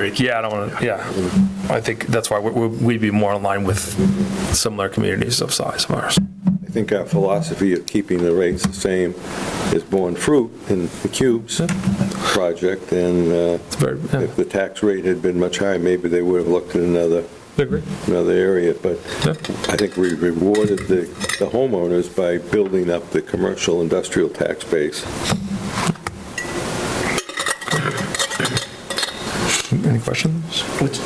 Yeah, I don't want to, yeah. I think that's why we- we- we'd be more in line with similar communities of size of ours. I think our philosophy of keeping the rates the same is borne fruit in the Cubes project, and uh, It's very, yeah, if the tax rate had been much higher, maybe they would have looked at another, I agree. another area, but Yeah. I think we rewarded the the homeowners by building up the commercial industrial tax base. Any questions? Which,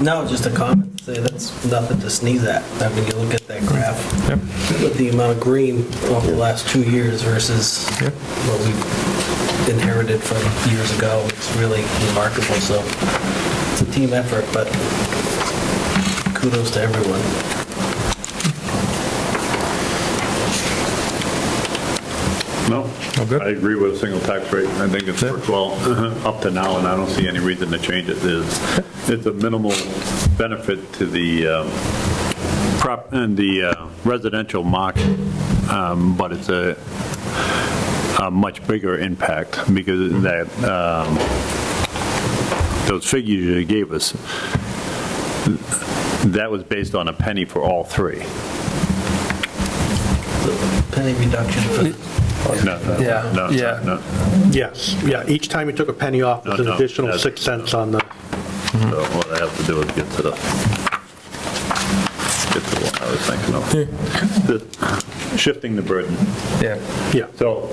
no, just a comment, say that's nothing to sneeze at. I mean, you look at that graph Yep. with the amount of green over the last two years versus Yeah. what we inherited from years ago. It's really remarkable, so it's a team effort, but kudos to everyone. No. good? I agree with a single tax rate. I think it's Yeah. worked well up to now, and I don't see any reason to change it. There's, it's a minimal benefit to the um, prop, and the uh, residential market, um, but it's a, a much bigger impact because that, um, those figures you gave us, that was based on a penny for all three. So Penny reduction for, No, no, Yeah. no, Yeah. no. Yes, yeah, each time you took a penny off, there's an No, no, additional that's- six cents on the, So what I have to do is get to the, get to what I was thinking of. The- Shifting the burden. Yeah, yeah, So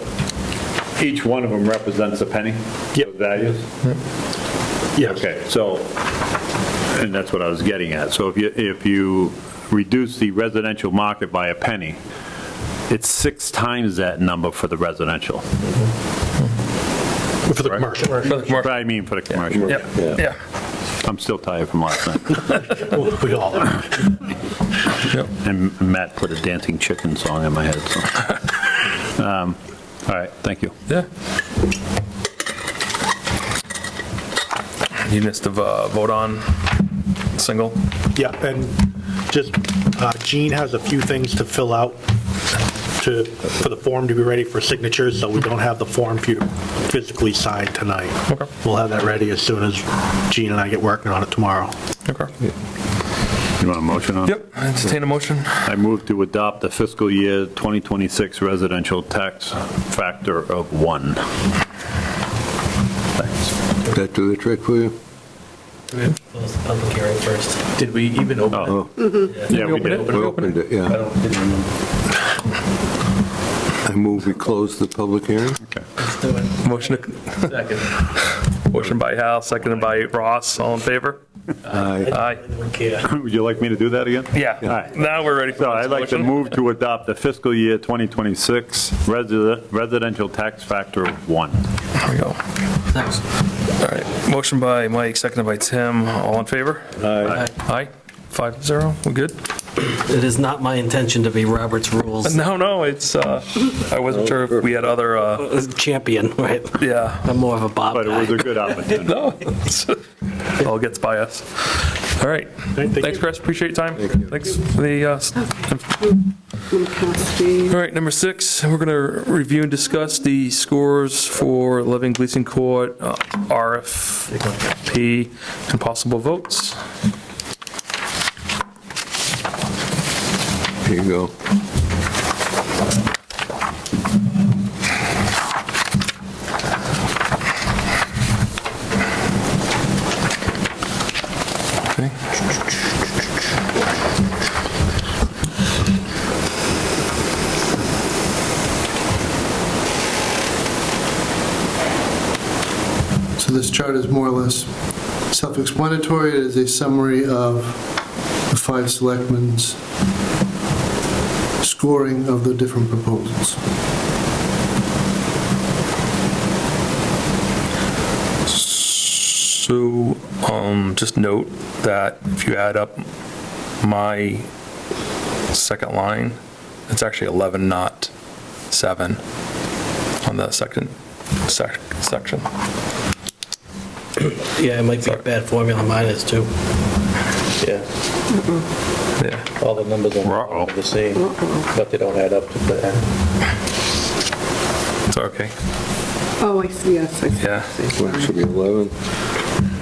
each one of them represents a penny? Yep. of Values? yes. Okay, so, and that's what I was getting at. So if you, if you reduce the residential market by a penny, it's six times that number for the residential. For the commercial. But I mean for the commercial. yeah, yeah. I'm still tired from last night. We all are. Yep. And Matt put a dancing chicken song in my head, so. Um, All right, thank you. Yeah. You missed the vo- vote on single. Yeah, and just, uh, Jean has a few things to fill out to, for the form to be ready for signatures, so we don't have the form for you to physically sign tonight. Okay. We'll have that ready as soon as Jean and I get working on it tomorrow. Okay. You want a motion on? Yep, entertain a motion. I move to adopt the fiscal year 2026 residential tax factor of one. Thanks. Did that do the trick for you? close the public hearing first. Did we even open Oh, yeah, we open did. it? Opened it, yeah. I move we close the public hearing. Okay. Let's do it. Motion, to- motion by Hal, seconded by Ross, all in favor? Aye. Aye. Don't care. Would you like me to do that again? All Yeah, right. now we're ready for So I'd like to motion. move to adopt the fiscal year 2026 resi- residential tax factor of one. There we go. All right, motion by Mike, seconded by Tim, all in favor? Aye. Aye, five zero, we're good? It is not my intention to be Robert's Rules No, no, it's, uh, I wasn't sure if we had other, uh, champion, right? yeah, I'm more of a Bob But it was guy. a good opportunity. no, it's- it all gets by us. All right, thank thanks, you. Chris, appreciate your time. Thanks for the, uh, s- all right, number six, we're going to review and discuss the scores for Loving Gleason Court, uh, RFP, and possible votes. Here you go. So this chart is more or less self-explanatory. It is a summary of the five selectmen's scoring of the different proposals. So, um, just note that if you add up my second line, it's actually 11, not 7 on the second sec- section. Yeah, it might be a bad formula, mine is too. Yeah, Yeah. all the numbers Uh-oh. are the same, but they don't add up to the end. It's okay. Oh, I see, yes, I see. Yeah. Well, it Should be 11.